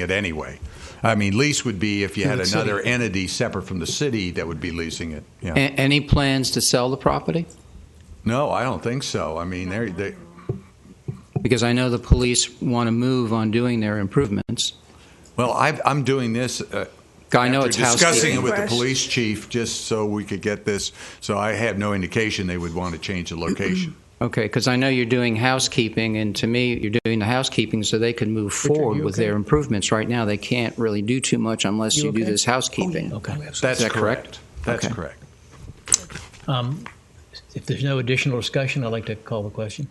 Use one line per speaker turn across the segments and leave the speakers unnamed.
it anyway. I mean, lease would be if you had
the city.
another entity separate from the city that would be leasing it. Yeah.
A- Any plans to sell the property?
No, I don't think so. I mean, they're, they,
Because I know the police want to move on doing their improvements.
well, I've, I'm doing this. Uh,
I know
after
it's
discussing
housekeeping.
it with the
Fresh.
police chief just so we could get this. So I have no indication they would want to change the location.
Okay, because I know you're doing housekeeping, and to me, you're doing the housekeeping so they can move
are
forward
you
with
okay?
their improvements. Right now, they can't really do too much unless
You
you do
okay?
this housekeeping.
Okay.
That's
that
correct.
correct?
That's
Okay.
correct.
Um, If there's no additional discussion, I'd like to call the question.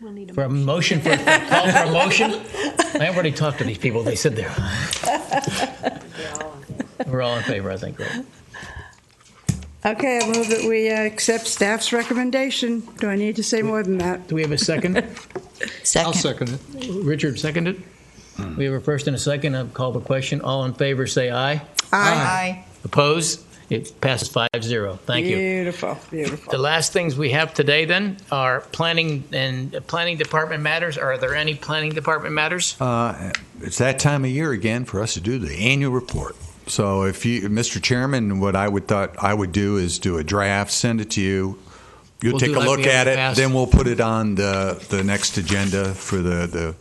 We'll need a
For a motion, for, call for a motion? I already talked to these people, they said they're, we're all in favor, I think, right?
Okay, I move that we uh, accept staff's recommendation. Do I need to say more than that?
Do we have a second?
Second.
second it. Richard seconded. We have a first and a second, I'll call the question. All in favor, say aye.
Aye.
Opposed? It passes five zero. Thank you.
Beautiful,
The
beautiful.
last things we have today then are planning and uh, planning department matters. Are there any planning department matters?
Uh, It's that time of year again for us to do the annual report. So if you, Mr. Chairman, what I would thought I would do is do a draft, send it to you. You'll
We'll
take
do
a
like
look
we
at
have in
it,
the past.
then we'll put it on the, the next agenda for the, the,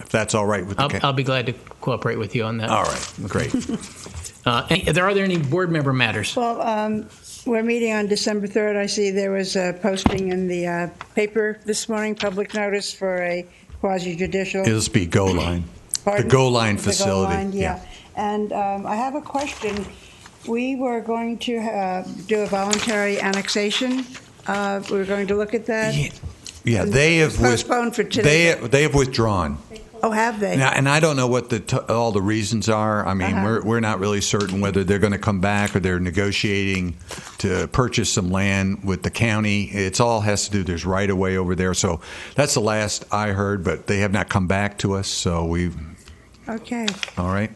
if that's all right with the.
I'll,
ca-
I'll be glad to cooperate with you on that.
All right, great.
Uh, any- there are there any board member matters?
Well, um, we're meeting on December 3rd. I see there was a posting in the uh, paper this morning, public notice for a quasi judicial.
It'll just be
um,
Go Line.
Pardon?
Go Line
The
facility,
Line,
yeah.
Yeah, and um, I have a question. We were going to uh, do a voluntary annexation. Uh, We were going to look at that.
Yeah, they have. with-
Postponed for today.
They, they have withdrawn.
Oh, have they?
Now, and I don't know what the t- all the reasons are. I mean,
Uh-huh.
we're, we're not really certain whether they're going to come back or they're negotiating to purchase some land with the county. It's all has to do. There's right of way over there, so that's the last I heard. But they have not come back to us. So we,
Okay.
all right.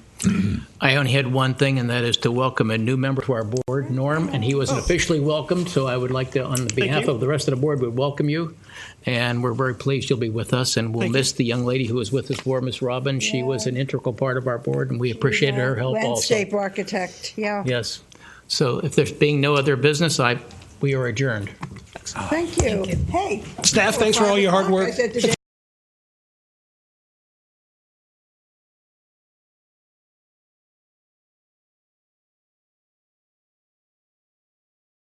I only had one thing, and that is to welcome a new member to our board, Norm, and he
Oh.
wasn't officially welcomed, so I would like to, on behalf of the rest of the board, would welcome you. And we're very pleased you'll be with us, and we'll miss the young lady who was with us before, Miss Robin. She was an integral part of our board, and we appreciated her help also.
Landscape architect, yeah.
Yes. So if there's being no other business, I, we are adjourned.
Thank you. Hey.
Staff, thanks for all your hard work.
I said today